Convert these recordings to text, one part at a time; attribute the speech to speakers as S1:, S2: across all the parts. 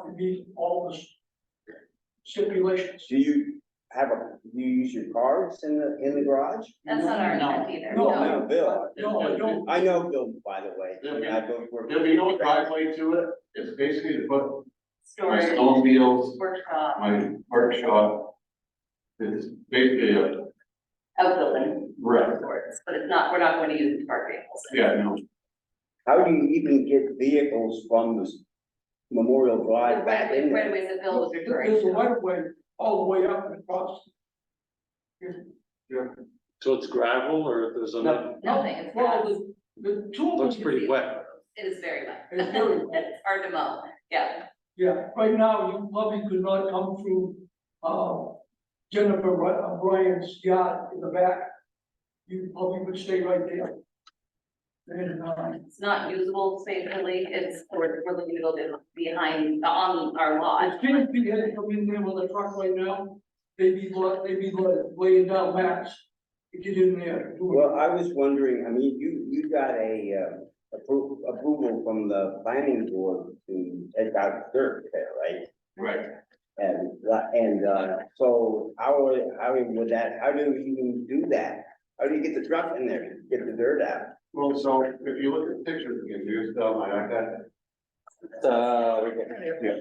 S1: to meet all the stipulations.
S2: Do you have a, do you use your cars in the, in the garage?
S3: That's not our
S4: No.
S3: intent either.
S1: No.
S2: Well, no, Bill,
S1: No, I don't.
S2: I know Bill, by the way, and I both work.
S4: There'll be no driveway to it, it's basically to put my
S3: Storage,
S4: snowmobiles,
S3: workshop,
S4: my workshop. It's basically a
S3: outbuilding
S4: wreck,
S3: of sorts, but it's not, we're not going to use it to park vehicles.
S4: yeah, no,
S2: How do you even get vehicles from the Memorial
S3: The
S2: Drive
S3: right
S2: back
S3: of way,
S2: in
S3: right
S2: there?
S3: of ways that Bill was referring
S1: There's a
S3: to.
S1: right of way all the way up and across.
S5: So it's gravel or there's a,
S1: No.
S3: Nothing, it's
S1: Well,
S3: grass.
S1: the, the two of them.
S5: looks pretty wet.
S3: It is very wet.
S1: It's very wet.
S3: It's hard to mow, yeah.
S1: Yeah, right now, you probably could not come through, uh, Jennifer Ry- uh, Bryan's yard in the back. You probably would stay right there. And, uh,
S3: It's not usable safely, it's, we're, we're looking to build it behind, on our lot.
S1: if Jennifer had to come in there with a truck right now, they'd be, lo- they'd be lo- laying down mats to get in there. do it.
S2: Well, I was wondering, I mean, you, you got a, uh, appro- approval from the planning board to take out dirt there, right?
S4: right.
S2: And, uh, and, uh, so how, would- how would that, how do you even do that? How do you get the truck in there, get the dirt out?
S4: Well, so if you look at pictures again, here's the, my iPad.
S2: Uh,
S4: Yeah.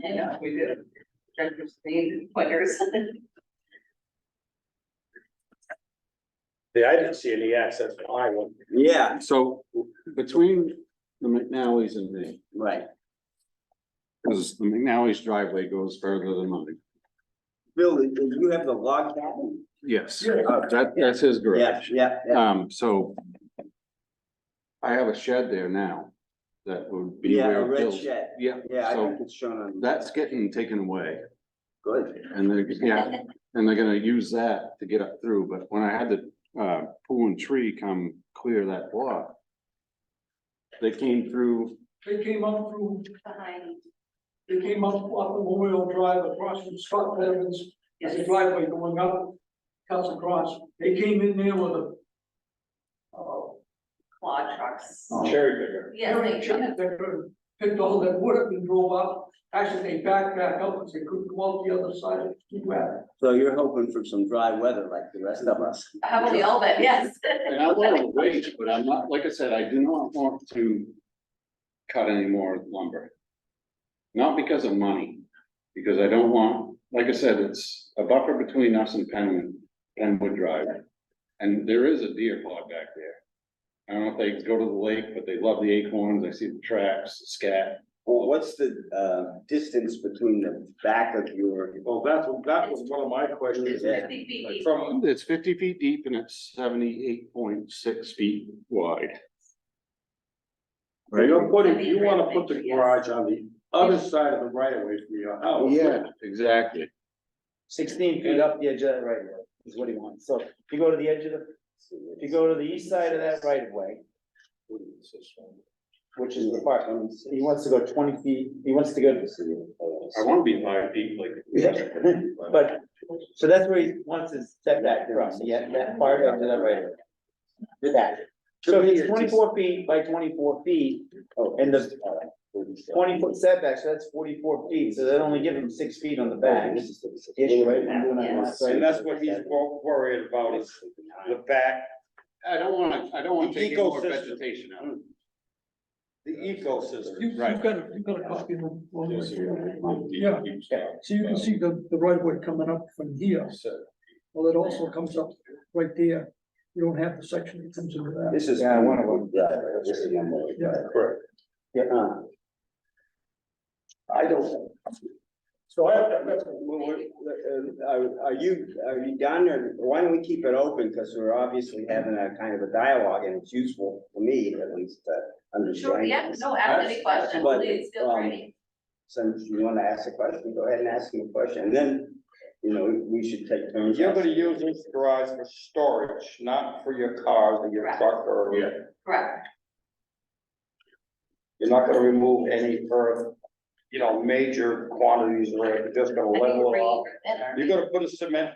S3: And
S4: we did.
S3: directors, the pointers.
S5: Yeah, I didn't see any access to highway.
S2: Yeah,
S6: So between the McNally's and me,
S2: right.
S6: because the McNally's driveway goes further than mine.
S2: Bill, do you have the log cabin?
S6: Yes.
S1: Yeah.
S6: Uh, That, that's his
S2: Yeah,
S6: garage.
S2: yeah, yeah.
S6: Um, so I have a shed there now that would be
S2: Yeah,
S6: where
S2: a red
S6: Bill's.
S2: shed.
S6: Yeah,
S2: Yeah, I
S6: so
S2: think it's shown on.
S6: that's getting taken away
S2: Good.
S6: and they're, yeah, and they're gonna use that to get up through. But when I had the, uh, pool and tree come clear that block, they came through,
S1: They came up through,
S3: Behind,
S1: they came up off the Memorial Drive across from Scott Evans There's a driveway going up, cuts across, they came in there with a. Uh,
S3: claw trucks.
S5: Oh. Cherry picker.
S3: Yes,
S1: very
S3: they,
S1: cheap, they could- picked all that wood up and drove up, actually, they backed back up, because they couldn't go out the other side of the wet.
S2: So you're hoping for some dry weather like the rest of us.
S3: how about the Elbit, yes.
S6: And I want to wait, but I'm not, like I said, I do not want to cut any more lumber. Not because of money, because I don't want, like I said, it's a buffer between us and Penwood, Penwood Drive. And there is a deer pod back there. I don't know if they go to the lake, but they love the acorns, I see the tracks, the scat.
S2: Well, what's the, uh, distance between the back of your, oh,
S5: Well, that's, that was one of my questions.
S3: It's fifty feet deep.
S5: From,
S6: It's fifty feet deep and it's seventy-eight point six feet wide.
S5: you're putting, you wanna put the garage on the other side of the right of way from your
S6: Oh,
S5: house.
S6: Exactly.
S7: sixteen feet up the edge of that right of way is what he wants. So if you go to the edge of the, if you go to the east side of that right of way, which is the park, um, he wants to go twenty feet, he wants to go
S5: I wanna be five feet like.
S7: Yeah. But, so that's where he wants his setback from, yeah, that part of that right of way. Did that. So he's twenty-four feet by twenty-four feet
S2: oh,
S7: and the twenty foot setback, so that's forty-four feet, so that only give him six feet on the back. Ish, right?
S5: And that's what he's wor- worried about is the back,
S6: I don't want to, I don't want to
S5: The
S6: take any more
S5: ecosystem.
S6: vegetation out.
S5: the ecosystem.
S1: You, you've
S6: Right.
S1: got, a- you've got a copy of the. well,
S4: Yes,
S1: Yeah, so you can see the, the right way coming up from here, well, it also comes up right there, you don't have the section that comes into that.
S2: This is.
S7: Yeah, I wanna go-
S2: Yeah, this is number-
S1: Yeah.
S2: Correct. Yeah, uh,
S5: I don't.
S2: so I, well, uh, are, are you, are you done or why don't we keep it open? Cause we're obviously having a kind of a dialogue and it's useful for me at least to
S3: Sure,
S2: understand.
S3: yeah, no, ask any questions,
S2: But,
S3: please, feel
S2: um,
S3: free.
S2: Since you wanna ask a question, go ahead and ask me a question, and then, you know, we should take turns.
S8: You're gonna use this garage for storage, not for your cars or your
S3: Correct.
S8: truck or,
S4: Yeah.
S3: Correct,
S8: you're not gonna remove any earth. You know, major quantities of earth, you're just gonna
S3: I think
S8: level it
S3: rain
S8: off.
S3: or thinner.
S8: You're gonna put a cement